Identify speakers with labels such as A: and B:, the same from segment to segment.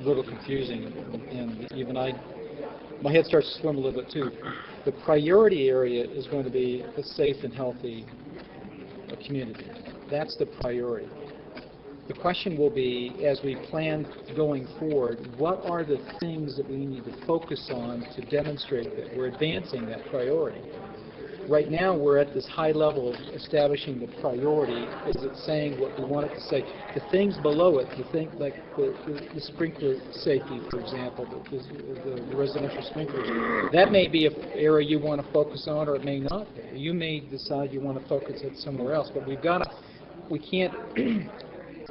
A: little confusing, and even I, my head starts to swim a little bit too. The priority area is going to be a safe and healthy uh, community. That's the priority. The question will be, as we plan going forward, what are the things that we need to focus on to demonstrate that we're advancing that priority? Right now, we're at this high level of establishing the priority. Is it saying what we want it to say? The things below it, you think like the, the- the sprinkler safety, for example, the, the- the residential sprinklers, that may be an area you want to focus on, or it may not. be. You may decide you want to focus it somewhere else, but we've got to, we can't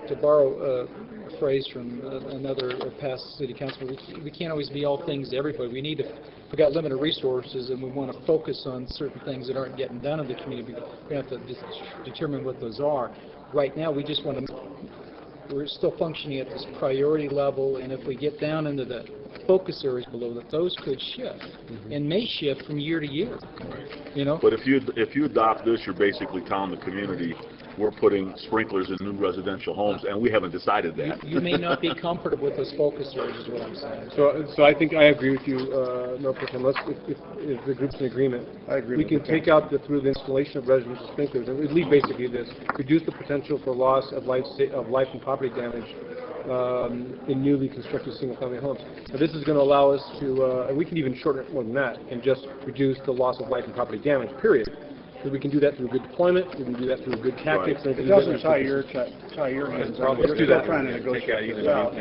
A: to borrow uh, a phrase from uh, another uh, past city councilman, we- we can't always be all things to everybody. We need to, we've got limited resources, and we want to focus on certain things that aren't getting done in the community. We have to de- determine what those are. Right now, we just want to, we're still functioning at this priority level, and if we get down into the focus areas below that, those could shift, and may shift from year to year, you know?
B: But if you, if you adopt this, you're basically telling the community, we're putting sprinklers in new residential homes, and we haven't decided that.
A: You may not be comfortable with those focus areas, is what I'm saying.
C: So, so I think I agree with you, uh, no, Pretend, let's, if, if, if the group's in agreement.
D: I agree
C: We
D: with
C: can
D: that.
C: take out the, through the installation of residential sprinklers, and we'd leave basically this, reduce the potential for loss of life, sa- of life and property damage, um, in newly constructed single-family homes. Now, this is gonna allow us to, uh, and we can even shorten it more than that, and just reduce the loss of life and property damage, period. So we can do that through good deployment, we can do that through good tactics. and we can
D: It
C: do that
D: doesn't
C: through-
D: tie your, ti- tie your hands. up.
C: Let's do that.
D: You're trying to negotiate this out.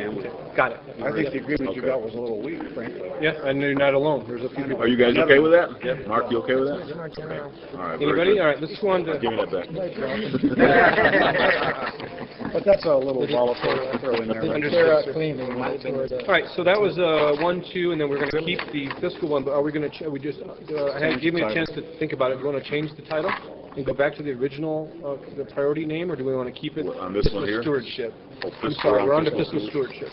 C: Got it.
D: I think the agreement you
B: Okay.
D: got was a little weak, frankly.
C: Yeah, and you're not alone, there's a few people.
B: Are you guys okay with that? Mark, you okay with that? Okay. All right, very
C: Anybody?
B: good.
C: All right, let's go on to.
B: Give me that back.
D: But that's a little volatile to throw in there.
C: All
D: right?
C: right, so that was uh, one, two, and then we're going to keep the fiscal one, but are we going to, we just, uh, I had, give me a chance to think about it. Do you want to change the title and go back to the original, uh, the priority name, or do we want to keep it?
B: On this one
C: fiscal
B: here?
C: Stewardship.
B: Oh,
C: I'm
B: fiscal-
C: sorry, we're on to
B: fiscal
C: fiscal stewardship.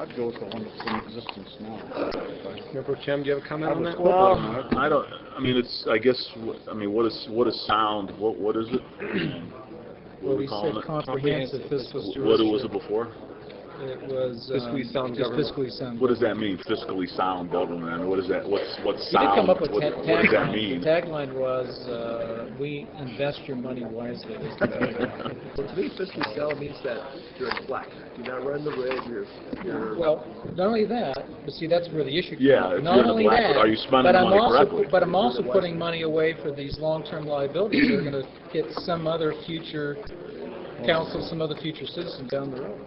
D: I'd go with the one that's in existence now.
C: Mayor Pro Tem, do you have a comment
D: I
C: on
D: was
C: that?
D: hoping that-
B: I don't, I mean, it's, I guess, wh- I mean, what is, what is sound, what, what is it?
A: Well,
B: What are we
A: we
B: calling
A: said
B: it?
A: comprehensive fiscal stewardship.
B: What was it before?
A: It was, um,
C: Fiscally sound
A: just
C: government.
A: fiscally sound.
B: What does that mean, fiscally sound government? I mean, what is that, what's, what's
A: You did
B: sound?
A: come up with
B: What
A: ta-
B: what does that
A: tagline.
B: mean?
A: The tagline was, uh, we invest your money wisely. is the tagline.
E: Well, to me, fiscal sound means that you're black. Do not run the red. You're, you're.
A: Well, not only that, but see, that's where the issue comes.
B: Yeah, if you're
A: Not
B: the
A: only
B: black,
A: that,
B: are you spending
A: but I'm
B: money
A: also-
B: correctly?
A: But I'm also putting money away for these long-term liabilities that are gonna hit some other future council, some other future citizen down the road.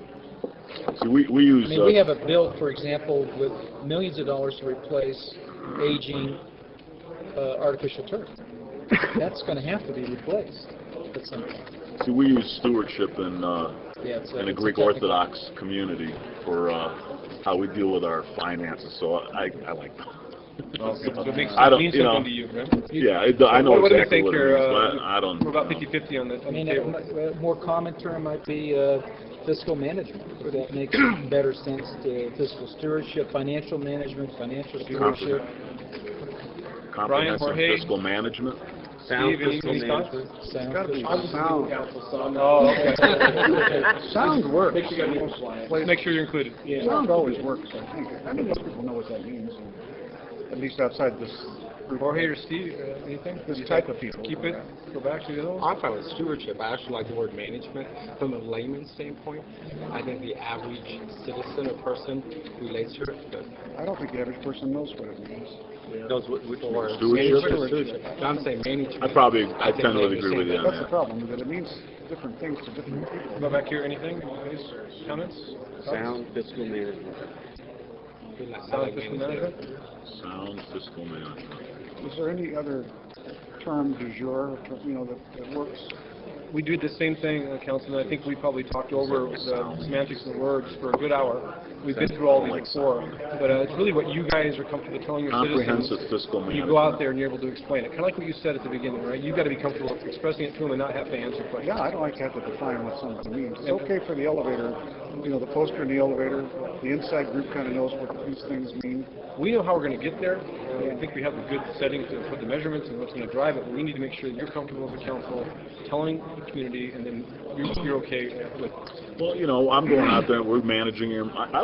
B: See, we, we use,
A: I
B: uh,
A: mean, we have a bill, for example, with millions of dollars to replace aging uh, artificial turf. That's going to have to be replaced at some point.
B: see, we use stewardship in, uh,
A: Yeah, it's a-
B: in the
A: it's a
B: Greek
A: technical-
B: Orthodox community for uh, how we deal with our finances. So I, I like that.
C: So it makes,
B: I
C: it
B: don't-
C: means
B: you know,
C: something to you, right?
B: Yeah, it, I know
C: What do we
B: exactly
C: think
B: what it
C: here,
B: means,
C: uh,
B: but I don't.
C: We're about
B: know.
C: fifty-fifty on the,
A: I
C: on the
A: mean, uh, a
C: table.
A: mu- a more common term might be uh, fiscal management. Would That makes better sense to fiscal stewardship, financial management, financial stewardship.
B: Comprehensive
C: Jorge?
B: fiscal management.
C: Steve, any- any thoughts?
A: sound
D: Gotta be
A: fiscal-
D: sound.
C: Oh, okay.
D: Sound works.
C: Let's Make sure you're included.
D: Sound always works, I think. I don't know if people know what that means, at least outside this,
C: Jorge or Steve, uh, anything?
D: this type of people.
C: Keep it, go back to the other one?
F: I'm fine with stewardship. I actually like the word management. From a layman's standpoint, I think the average citizen or person relates to it. but-
D: I don't think the average person knows what it means.
F: or-
B: Stewardship?
F: Stewardship. No, I'm saying management.
B: I probably, I
F: think
B: tend to
F: they
B: agree with you
F: understand
B: on
D: That's the
B: that.
D: problem, that it means different things to different people.
C: Go back here, anything, please, comments? Sound.
F: that. Like, I
C: Sound
F: like
C: fiscal
F: management.
C: management?
B: Sound fiscal management.
D: Is there any other term du jour, you know, that, that works?
C: We did the same thing, uh, Councilman, I think we probably talked over the semantics of the words for a good hour. We've been through all these before, but uh, it's really what you guys are comfortable telling your
B: Comprehensive
C: citizens.
B: fiscal
C: when You
B: management.
C: go out there and you're able to explain it, kind of like what you said at the beginning, right? You've got to be comfortable expressing it to them and not have to answer questions.
D: Yeah, I don't like to have to define what something means. It's okay for the elevator, you know, the poster in the elevator, the inside group kind of knows what these things mean.
C: We know how we're going to get there, and I think we have the good setting to put the measurements and what's going to drive it, but we need to make sure that you're comfortable as a council telling the community, and then you're you're okay with it.
B: Well, you know, I'm going out there, we're managing, your- I, I